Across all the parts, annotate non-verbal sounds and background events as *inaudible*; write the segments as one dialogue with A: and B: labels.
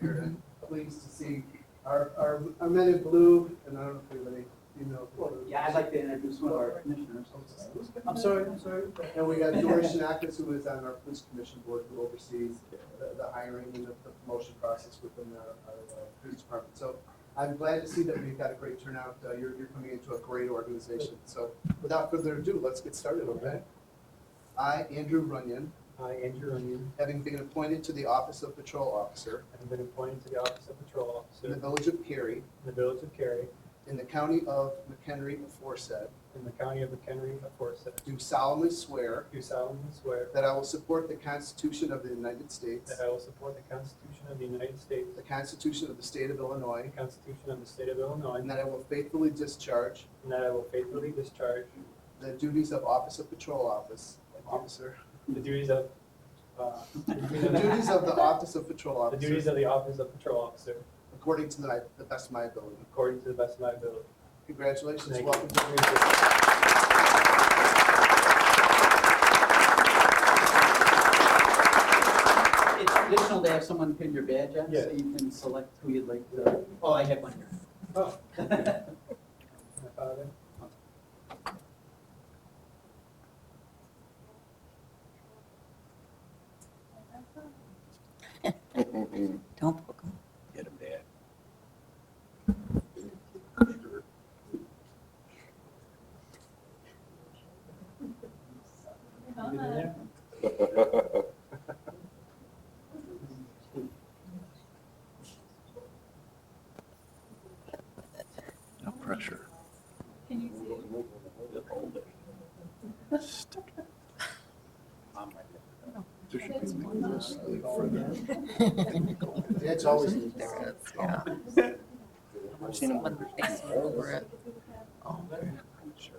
A: here, and pleased to see our, our, our men in blue, and I don't know if anybody, you know. who-
B: Yeah, I'd like to introduce one of our commissioners. I'm sorry, I'm sorry.
A: And we got George Shinakis, who is on our police commission board, who oversees the, the hiring and the the promotion process within our, our uh, police department. So I'm glad to see that we've got a great turnout. Uh, you're, you're coming into a great organization. So without further ado, let's get started, okay? I, Andrew Runyon,
C: I, Andrew Runyon,
A: having been appointed to the office of patrol officer
C: have been appointed to the office of patrol
A: in the
C: officer
A: village of Cary,
C: in the village of Cary,
A: in the county of McHenry aforesaid,
C: in the county of McHenry, aforesaid.
A: do solemnly swear
C: Do solemnly swear
A: that I will support the Constitution of the United States,
C: that I will support the Constitution of the United States,
A: the Constitution of the State of Illinois,
C: the Constitution of the State of Illinois,
A: And that I will faithfully discharge
C: and that I will faithfully discharge
A: the duties of Office of Patrol Office, Officer.
C: the duties of, uh, the duties
A: The
C: of-
A: duties of the Office of Patrol
C: the duties
A: Officer,
C: of the office of patrol officer
A: according to my- the best of my ability.
C: according to the best of my ability.
A: Congratulations,
C: Thank you.
A: welcome. to-
B: It's traditional to have someone pin your badge on,
C: Yeah.
B: so you can select who you'd like to, oh, I have one here.
C: Oh,
B: Thank
C: my father.
D: Don't poke him.
E: Get him dad.
C: You been there?
E: No pressure.
F: Can you see it?
E: Hold it. Stick it. On my lip. There should be one of those, like, further.
A: That's always neat.
D: There it is, yeah. I've seen him with things over it.
E: Oh, man. Sure.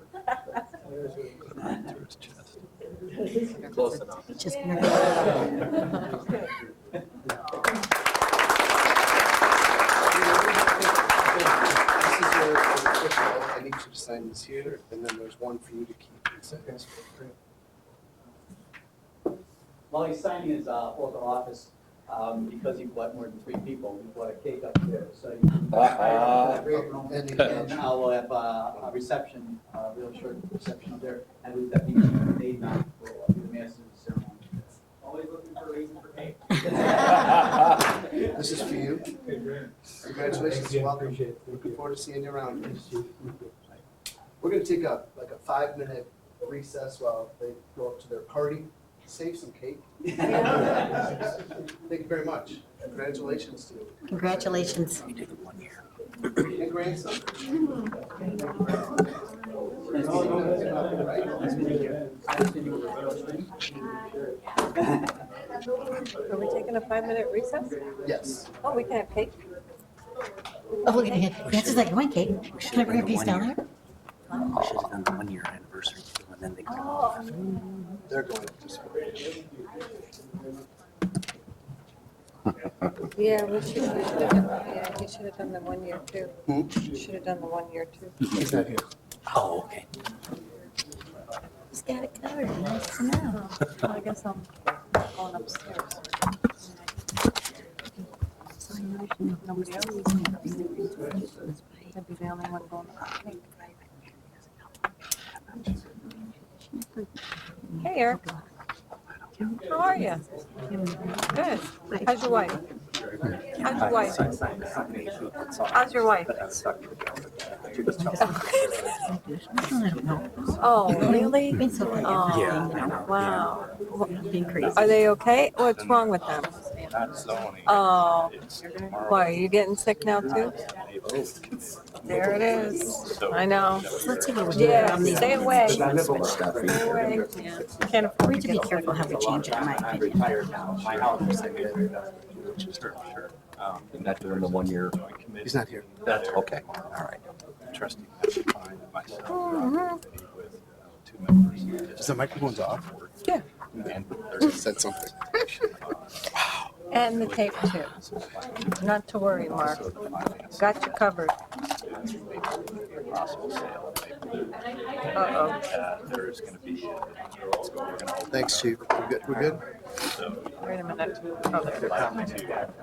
C: There's your-
E: Put it right through its chest.
D: Close enough. Just near.
F: *laughs*
A: This is your official, I need you to sign this here, and then there's one for you to keep. It's- it's-
B: *laughs* While he's signing his uh, oath of office, um, because he bought more than three people, he bought a cake up there, so you can.
E: Uh-uh.
C: *laughs*
A: And you
B: And
A: can-
B: now we'll have uh, a reception, a real short reception up there. I believe that means Dave Knott will be the master of the ceremony. Always looking for a reason for *laughs*
C: *laughs*
B: cake.
A: This is for you.
C: Okay, great. Thank
A: Congratulations,
C: you,
A: welcome.
C: Appreciate it. Thank
A: Looking
C: you.
A: forward to seeing you around.
C: Thank you.
A: We're gonna take a, like a five-minute recess while they go up to their party, save some cake. Thank you very much. Congratulations to you.
D: Congratulations.
E: We did it one year.
A: And grandson.
B: Nice to meet you. Nice to meet you. Nice
C: Right?
B: to meet you.
G: Are we taking a five-minute recess?
A: Yes.
G: Oh, we can have cake?
D: Oh, look at him. That's just like one cake.
E: We should
D: Can I
E: have
D: bring
E: done the
D: a piece
E: one
D: down
E: year.
D: there?
E: We should have done the one year anniversary too, and then they cut off.
A: They're going up to school.
G: Yeah, we should have done, yeah, he should have done the one year too.
A: Hmm?
G: Should have done the one year too.
A: He's not here.
E: Oh, okay.
D: He's got it covered. Nice to know.
G: Well, I guess I'm going upstairs.
D: So I know if nobody else is in the room,
G: I'd be the only one going up. Hey, Eric. How are you? Good. How's your wife? How's your wife? How's your wife? *laughs*
D: I don't know.
G: Oh, really?
D: Been so long.
G: Oh,
D: You know,
G: wow.
D: Being crazy.
G: Are they okay? What's wrong with them?
E: Not zoning.
G: Oh,
E: It's
G: why, are you getting sick now too? There it is. I know.
D: Let's take a look.
G: Yeah,
D: Um, these
G: stay
D: ones.
G: away.
D: Stay
G: away.
D: Can't afford to be careful how we change it, in my opinion.
H: retired now. My house is second grade.
E: Not doing the one year.
A: He's not here.
E: That's okay. All right. Trustee.
G: Mm-hmm.
A: Is
E: Is
A: the microphone's off?
G: Yeah.
A: Said something.
E: uh,
G: And the tape too. Not to worry, Mark. Got you covered. Uh-oh.
E: uh, There's going to be.
A: Thanks, chief. We're good, we're good?
G: Wait a minute. Oh, there.
E: Coming to